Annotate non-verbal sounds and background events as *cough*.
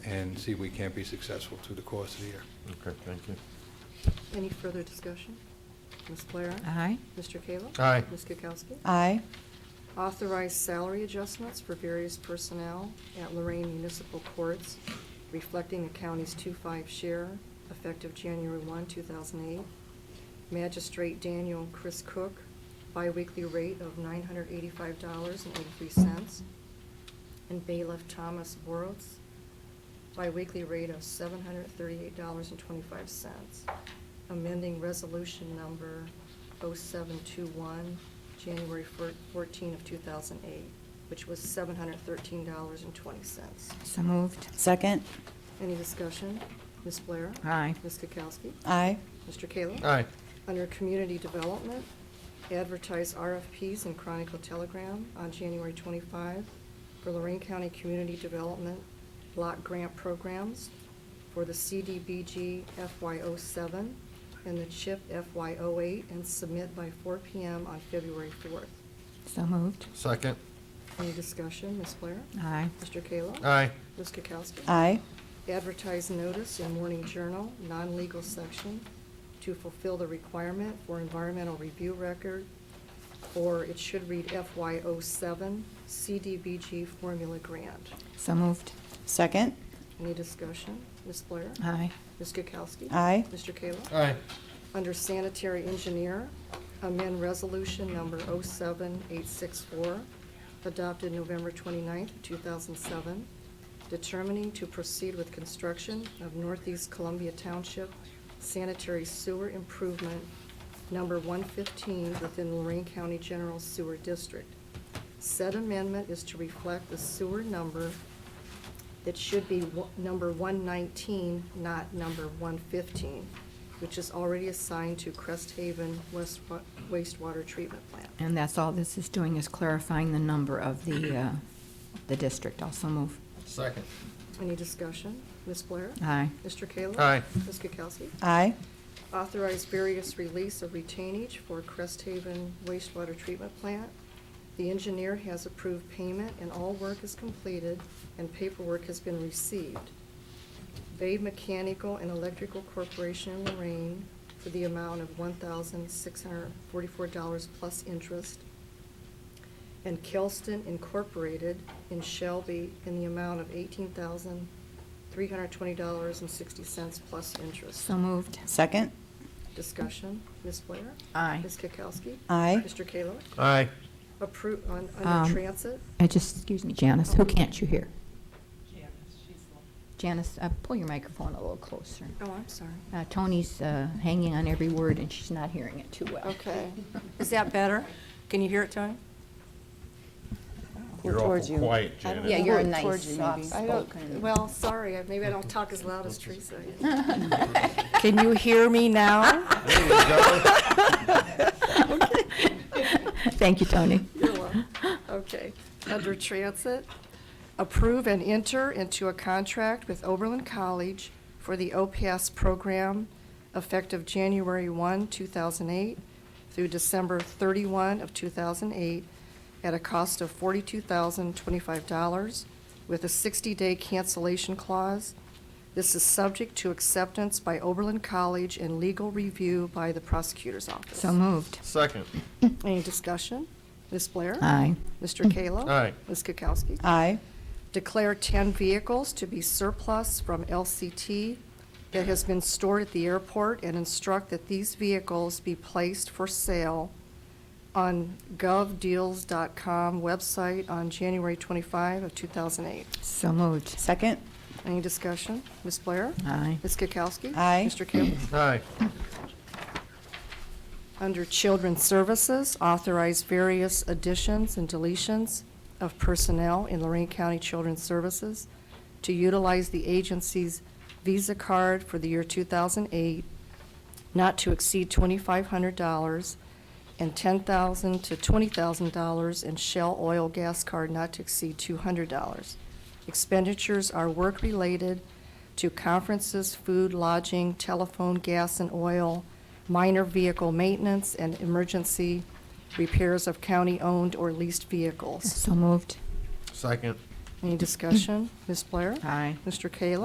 and see if we can't be successful through the course of the year. Okay, thank you. Any further discussion? Ms. Blair? Aye. Mr. Kayla? Aye. Ms. Kukowski? Aye. Authorize salary adjustments for various personnel at Lorraine Municipal Courts reflecting the county's two-five share effective January 1, 2008. Magistrate Daniel Chris Cook, biweekly rate of $985.83. And bailiff Thomas Boros, biweekly rate of $738.25. Amending resolution number 0721, January fir- 14 of 2008, which was $713.20. So moved. Second? Any discussion? Ms. Blair? Aye. Ms. Kukowski? Aye. Mr. Kayla? Aye. Under Community Development, advertise RFPs in Chronicle Telegram on January 25 for Lorraine County Community Development Block Grant Programs for the CDBG FY07 and the CHIP FY08, and submit by 4 PM on February 4th. So moved. Second. Any discussion? Ms. Blair? Aye. Mr. Kayla? Aye. Ms. Kukowski? Aye. advertise notice in Morning Journal, non-legal section, to fulfill the requirement for environmental review record, or it should read FY07 CDBG formula grant. So moved. Second? Any discussion? Ms. Blair? Aye. Ms. Kukowski? Aye. Mr. Kayla? Aye. Under sanitary engineer, amend resolution number 07864, adopted November 29th, 2007, determining to proceed with construction of Northeast Columbia Township sanitary sewer improvement number 115 within Lorraine County General Sewer District. Said amendment is to reflect the sewer number that should be wo- number 119, not number 115, which is already assigned to Crest Haven West wa- wastewater treatment plant. And that's all this is doing is clarifying the number of the, uh, the district. Also move. Second. Any discussion? Ms. Blair? Aye. Mr. Kayla? Aye. Ms. Kukowski? Aye. Authorize various release of retainage for Crest Haven wastewater treatment plant. The engineer has approved payment, and all work is completed, and paperwork has been received. Bay Mechanical and Electrical Corporation in Lorraine for the amount of $1,644 plus interest, and Kelston Incorporated in Shelby in the amount of $18,320.60 plus interest. So moved. Second? Discussion, Ms. Blair? Aye. Ms. Kukowski? Aye. Mr. Kayla? Aye. Approve, on, Um, under transit? I just, excuse me, Janice, who can't you hear? Janice, she's the Janice, uh, pull your microphone a little closer. Oh, I'm sorry. Uh, Tony's uh, hanging on every word and she's not hearing it too well. *laughs* Okay. Is that better? Can you hear it, Tony? You're towards awful you. quiet, I don't Janice. Yeah, you're a Or nice, towards you, maybe. I don't, soft-spoken. well, sorry, I- maybe I don't talk as loud as Teresa. *laughs* Can you hear me now? There you go. *laughs* Thank you, Tony. You're welcome. Okay. Under Transit, approve and enter into a contract with Oberlin College for the OPS program effective January 1, 2008 through December 31 of 2008 at a cost of $42,025 with a 60-day cancellation clause. This is subject to acceptance by Oberlin College and legal review by the prosecutor's office. So moved. Second. Any discussion? Ms. Blair? Aye. Mr. Kayla? Aye. Ms. Kukowski? Aye. Declare 10 vehicles to be surplus from LCT that has been stored at the airport and instruct that these vehicles be placed for sale on govdeals.com website on January 25 of 2008. So moved. Second? Any discussion? Ms. Blair? Aye. Ms. Kukowski? Aye. Mr. Kayla? Aye. Under Children's Services, authorize various additions and deletions of personnel in Lorraine County Children's Services to utilize the agency's Visa card for the year 2008, not to exceed $2,500, and $10,000 to $20,000 in Shell Oil Gas Card not to exceed $200. Expenditures are work-related to conferences, food, lodging, telephone, gas and oil, minor vehicle maintenance, and emergency repairs of county-owned or leased vehicles. So moved. Second. Any discussion? Ms. Blair? Aye. Mr. Kayla?